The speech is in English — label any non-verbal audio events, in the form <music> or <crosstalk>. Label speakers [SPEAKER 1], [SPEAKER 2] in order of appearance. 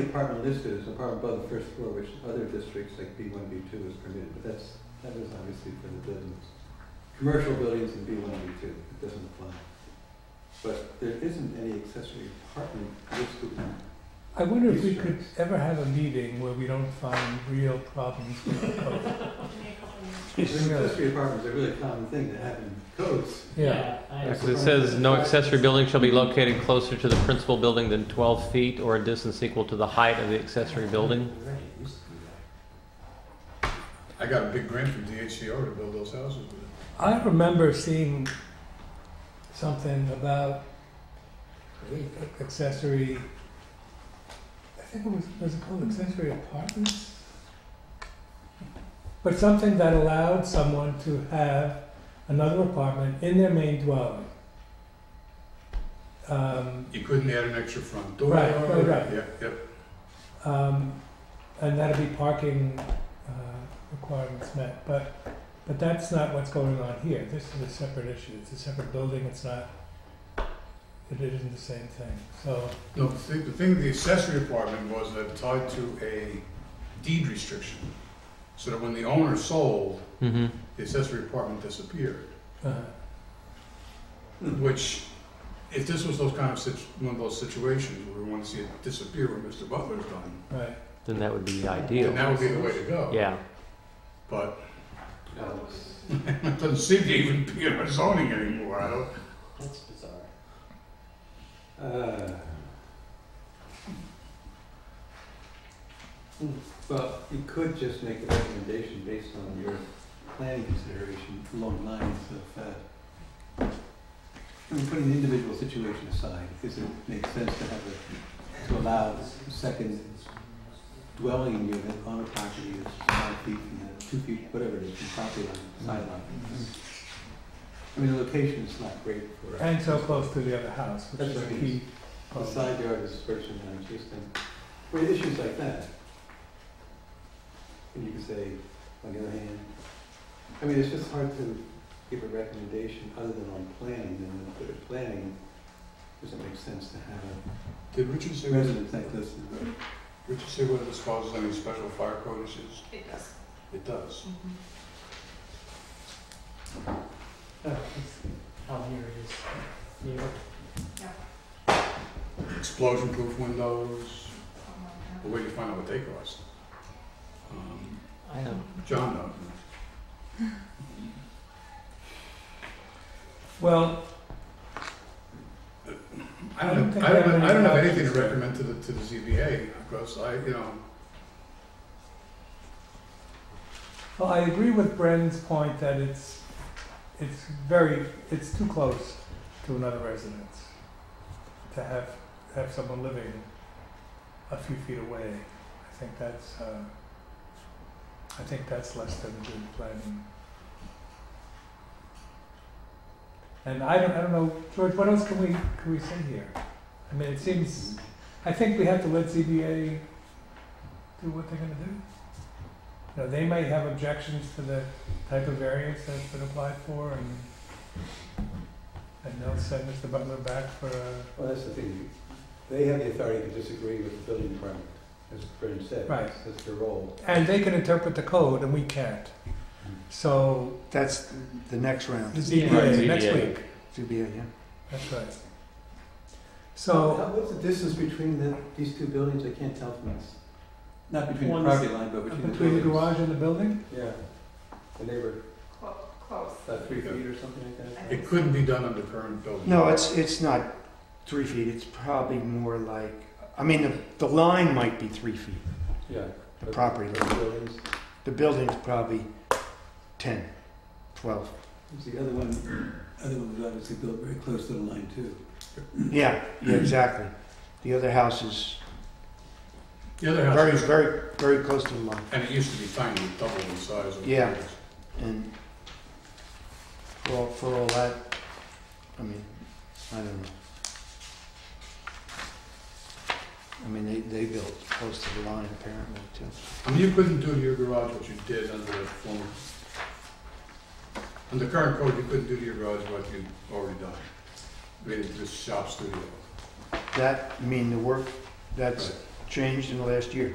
[SPEAKER 1] The apartment listed is apartment above the first floor, which other districts like B one, B two is permitted, but that's, that was obviously for the buildings. Commercial buildings in B one, B two, it doesn't apply. But there isn't any accessory apartment listed in
[SPEAKER 2] I wonder if we
[SPEAKER 1] These
[SPEAKER 2] could
[SPEAKER 1] shirts.
[SPEAKER 2] ever have a meeting where we don't find real problems with the code.
[SPEAKER 1] Accessory apartments are really a common thing that happen in codes.
[SPEAKER 2] Yeah,
[SPEAKER 3] I-
[SPEAKER 4] Because it says, "No accessory building shall be located closer to the principal building than 12 feet or a distance equal to the height of the accessory building."
[SPEAKER 3] Right, it used to be
[SPEAKER 5] I got a big grant from DHCR to build those houses with it.
[SPEAKER 2] I remember seeing something about accessory, I think it was, was it called accessory apartments? But something that allowed someone to have another apartment in their main dwelling. Um,
[SPEAKER 5] You couldn't add an extra front door.
[SPEAKER 2] Right, right, right.
[SPEAKER 5] Yep, yep.
[SPEAKER 2] Um, and that'll be parking, uh, requirements met, but, but that's not what's going on here, this is a separate issue, it's a separate building, it's not, it isn't the same thing, so,
[SPEAKER 5] No, the thing, the thing, with the accessory apartment was that tied to a deed restriction. So that when the owner sold,
[SPEAKER 4] Mm-hmm.
[SPEAKER 5] the accessory apartment disappeared,
[SPEAKER 2] uh,
[SPEAKER 5] which, if this was those kind of situ, one of those situations where we want to see it disappear when Mr. Butler's done,
[SPEAKER 2] right.
[SPEAKER 4] Then that would be
[SPEAKER 5] then
[SPEAKER 4] ideal.
[SPEAKER 5] that would be the way to go.
[SPEAKER 4] Yeah.
[SPEAKER 5] But <laughs> it doesn't seem to even be in our zoning anymore, I don't,
[SPEAKER 3] That's bizarre.
[SPEAKER 1] Uh, hmm, Well, you could just make a recommendation based on your planning consideration along lines of, uh, I mean, putting the individual situation aside, does it make sense to have a, to allow a second dwelling unit on a property that's five feet from the, two feet, whatever it is, from property line, sideline? I mean, the location is not great for. a-
[SPEAKER 2] And so close to the other house, which
[SPEAKER 1] That's
[SPEAKER 2] is a
[SPEAKER 1] right.
[SPEAKER 2] key.
[SPEAKER 1] the
[SPEAKER 2] problem.
[SPEAKER 1] side yard is first and non-existent. Well, issues like that. And you can say, on the other hand, I mean, it's just hard to give a recommendation other than on planning, and the, the planning doesn't make sense to have
[SPEAKER 5] did Richard say?
[SPEAKER 1] a residence like this.
[SPEAKER 5] Would you say whether this causes any special fire code issues?
[SPEAKER 6] It does.
[SPEAKER 5] It does.
[SPEAKER 3] Oh, it's, oh, here it is. New York.
[SPEAKER 5] Explosion-proof windows, a way to find out what they cost. Um,
[SPEAKER 3] I don't.
[SPEAKER 5] John knows.
[SPEAKER 2] Well,
[SPEAKER 5] I
[SPEAKER 2] I don't
[SPEAKER 5] don't,
[SPEAKER 2] think
[SPEAKER 5] I don't,
[SPEAKER 2] I have
[SPEAKER 5] I don't have
[SPEAKER 2] any
[SPEAKER 5] anything to
[SPEAKER 2] options.
[SPEAKER 5] recommend to the, to the ZBA, because I, you know,
[SPEAKER 2] well, I agree with Bren's point that it's, it's very, it's too close to another residence to have, have someone living a few feet away. I think that's, uh, I think that's less than good planning. And I don't, I don't know, George, what else can we, can we say here? I mean, it seems I think we have to let ZBA do what they're gonna do. Now, they may have objections to the type of variance that's been applied for and and they'll send Mr. Butler back for a,
[SPEAKER 1] Well, that's the thing, they have the authority to disagree with the building department, as Brendan said.
[SPEAKER 2] Right.
[SPEAKER 1] That's their role.
[SPEAKER 2] and they can interpret the code and we can't. So,
[SPEAKER 7] That's the next
[SPEAKER 2] the
[SPEAKER 7] round,
[SPEAKER 2] ZBA, next
[SPEAKER 4] ZBA.
[SPEAKER 2] week,
[SPEAKER 7] ZBA, yeah.
[SPEAKER 2] that's right. So,
[SPEAKER 1] How- What's the distance between the, these two buildings, I can't tell from this. Not between the
[SPEAKER 3] One's-
[SPEAKER 1] property line, but between the
[SPEAKER 2] between the
[SPEAKER 1] buildings.
[SPEAKER 2] garage and the building,
[SPEAKER 1] Yeah, the neighbor,
[SPEAKER 6] Close.
[SPEAKER 1] about three feet or something like that.
[SPEAKER 5] it couldn't be done under current building.
[SPEAKER 7] No, it's, it's not three feet, it's probably more like, I mean, the, the line might be three feet,
[SPEAKER 1] Yeah.
[SPEAKER 7] the property
[SPEAKER 1] Those
[SPEAKER 7] line.
[SPEAKER 1] buildings.
[SPEAKER 7] The building's probably 10, 12.
[SPEAKER 1] It's The other one, other one was obviously built very close to the line too.
[SPEAKER 7] Yeah, yeah, exactly. The other house is
[SPEAKER 5] The other
[SPEAKER 7] very,
[SPEAKER 5] house,
[SPEAKER 7] very, very close to the line,
[SPEAKER 5] and it used to be tiny, double in size. of-
[SPEAKER 7] Yeah. and for all, for all that, I mean, I don't know. I mean, they, they built close to the line apparently too.
[SPEAKER 5] I mean, you couldn't do to your garage what you did under the former, under current code, you couldn't do to your garage what you'd already done. Made it just shop studio.
[SPEAKER 7] That, I mean, the work, that's
[SPEAKER 5] Right.
[SPEAKER 7] changed in the last year.